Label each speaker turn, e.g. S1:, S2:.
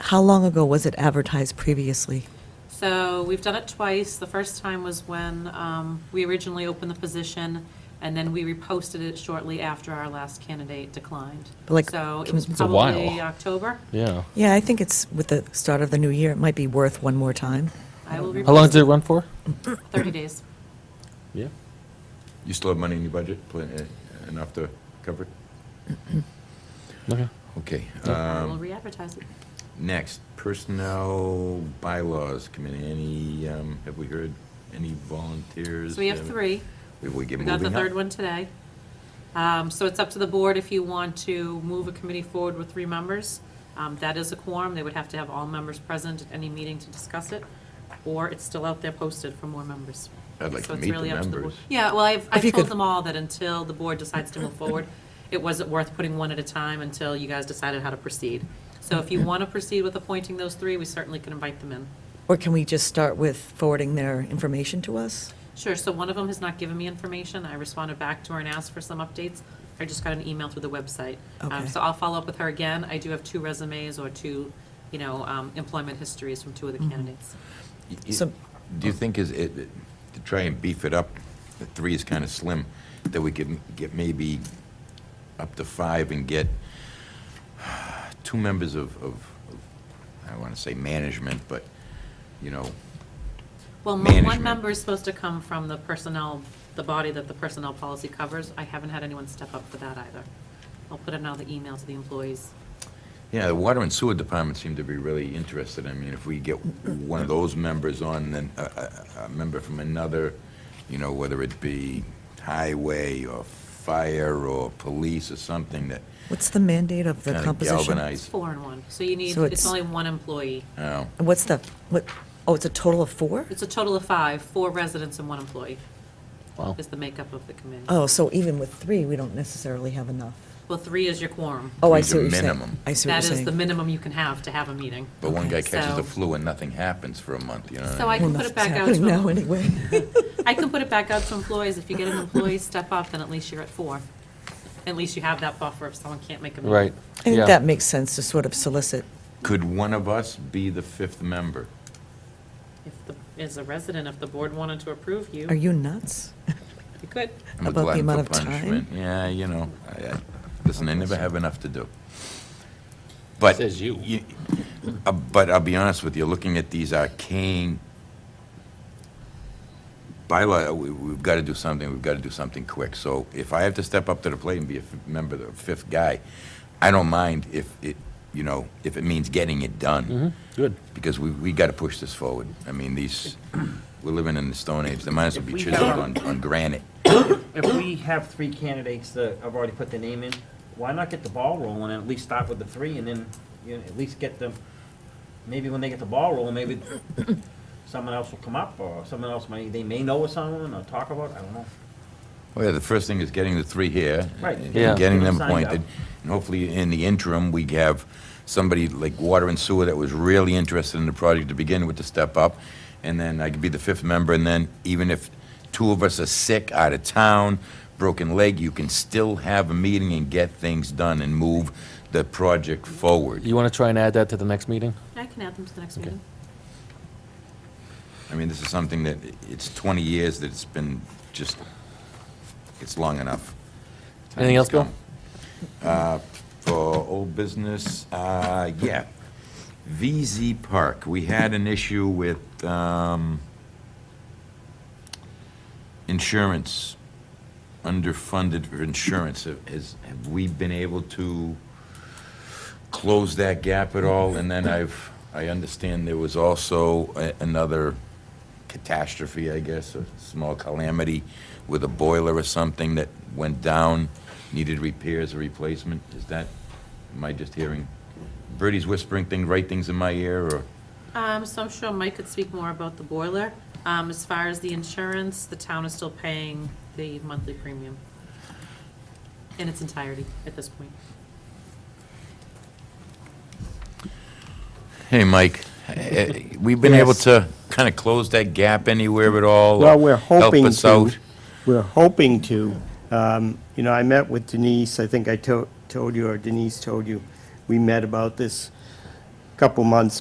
S1: How long ago was it advertised previously?
S2: So we've done it twice. The first time was when um, we originally opened the position, and then we reposted it shortly after our last candidate declined.
S1: But like,
S2: So it
S1: can-
S2: was
S1: It's
S2: probably
S1: a
S2: October.
S3: while. Yeah.
S1: Yeah, I think it's with the start of the new year, it might be worth one more time.
S2: I will
S3: How long
S2: repost
S3: did it run for?
S2: it 30 days.
S3: Yeah.
S4: You still have money in your budget, pl- eh, enough to cover it?
S3: Okay.
S4: Okay.
S2: I will
S4: um,
S2: re-advertise it.
S4: Next, Personnel Bylaws Committee, any, um, have we heard any volunteers?
S2: So we have three.
S4: We we get
S2: We
S4: moving
S2: got the
S4: up?
S2: third one today. Um, So it's up to the board if you want to move a committee forward with three members. Um, That is a quorum. They would have to have all members present at any meeting to discuss it, or it's still out there posted for more members.
S4: I'd like
S2: So
S4: to
S2: it's
S4: meet the
S2: really up to board.
S4: members.
S2: Yeah, well,
S1: If
S2: I've,
S1: you
S2: I've told
S1: could-
S2: them all that until the board decides to move forward, it wasn't worth putting one at a time until you guys decided how to proceed. So if you want to proceed with appointing those three, we certainly can invite them in.
S1: Or can we just start with forwarding their information to us?
S2: Sure, so one of them has not given me information. I responded back to her and asked for some updates. I just got an email through the website. Um,
S1: Okay.
S2: So I'll follow up with her again. I do have two resumes or two, you know, um, employment histories from two of the candidates.
S4: Y- y-
S1: So-
S4: Do you think is it, to try and beef it up, the three is kind of slim, that we could get maybe up to five and get two members of, of, of- I don't want to say management, but, you know,
S2: Well, mo- one
S4: Management.
S2: member is supposed to come from the personnel, the body that the personnel policy covers. I haven't had anyone step up for that either. I'll put another email to the employees.
S4: yeah, the water and sewer department seem to be really interested. I mean, if we get one of those members on, then a, a, a member from another, you know, whether it be highway or fire or police or something that
S1: What's the mandate of the
S4: kind of
S1: composition?
S2: It's
S4: galvanizes.
S2: four and one, so you need,
S1: So
S2: it's
S1: it's-
S2: only one employee.
S4: Oh.
S1: And What's the, what, oh, it's a total of four?
S2: It's a total of five, four residents and one employee
S3: Wow.
S2: is the makeup of the committee.
S1: Oh, so even with three, we don't necessarily have enough.
S2: Well, three is your quorum.
S1: Oh, I
S4: Three's
S1: see
S4: a
S1: what you're saying.
S4: minimum.
S1: I see what
S2: That
S1: you're
S2: is the
S1: saying.
S2: minimum you can have to have a meeting.
S4: But one guy
S2: Okay.
S4: catches the
S2: So-
S4: flu and nothing happens for a month, you know? what
S2: So I can
S4: mean?
S1: Well,
S2: put
S1: nothing's
S2: it back out
S1: happening
S2: to-
S1: now anyway.
S2: I can put it back out to employees. If you get an employee step up, then at least you're at four. At least you have that buffer if someone can't make a meeting.
S3: Right.
S1: I think
S3: yeah.
S1: that makes sense to sort of solicit.
S4: Could one of us be the fifth member?
S2: If the, as a resident, if the board wanted to approve you,
S1: Are you nuts?
S2: you could.
S4: I'm a
S1: About the
S4: glutton for
S1: amount of time?
S4: punishment. Yeah, you know, I, I, listen, I never have enough to do. But.
S3: Says you.
S4: uh, But I'll be honest with you, looking at these arcane bylaw, we, we've got to do something, we've got to do something quick. So if I have to step up to the plate and be a f- member, the fifth guy, I don't mind if it, you know, if it means getting it done.
S3: Mm-hmm. Good.
S4: because we, we got to push this forward. I mean, these, we're living in the Stone Age, they might as well be
S5: If we
S4: chiseled on,
S5: don't-
S4: on granite.
S5: If we have three candidates that have already put their name in, why not get the ball rolling and at least start with the three and then, you know, at least get them, maybe when they get the ball rolling, maybe someone else will come up or someone else may, they may know of someone or talk about, I don't know.
S4: Well, yeah, the first thing is getting the three here.
S5: Right.
S4: and
S3: Yeah.
S4: Getting them
S5: Signed up.
S4: appointed, and hopefully in the interim, we have somebody like Water and Sewer that was really interested in the project to begin with to step up, and then I could be the fifth member, and then even if two of us are sick, out of town, broken leg, you can still have a meeting and get things done and move the project forward.
S3: You want to try and add that to the next meeting?
S2: I can add them to the next
S3: Okay.
S2: meeting.
S4: I mean, this is something that, i- it's 20 years that it's been just, it's long enough. Time
S3: Anything
S4: has
S3: else, Bill?
S4: come. Uh, For old business, uh, yeah. VZ Park, we had an issue with um, insurance, underfunded for insurance. Have- Has, have we been able to close that gap at all? And then I've, I understand there was also a- another catastrophe, I guess, a small calamity with a boiler or something that went down, needed repairs or replacement. Is that, am I just hearing, Bertie's whispering things, right things in my ear, or?
S2: Um, so I'm sure Mike could speak more about the boiler. Um, as far as the insurance, the town is still paying the monthly premium in its entirety at this point.
S4: Hey, Mike, eh, we've been able
S6: Yes.
S4: to kind of close that gap anywhere at all? or
S6: Well, we're hoping
S4: Help
S6: to.
S4: us out?
S6: We're hoping to. Um, You know, I met with Denise, I think I to- told you, or Denise told you, we met about this a couple months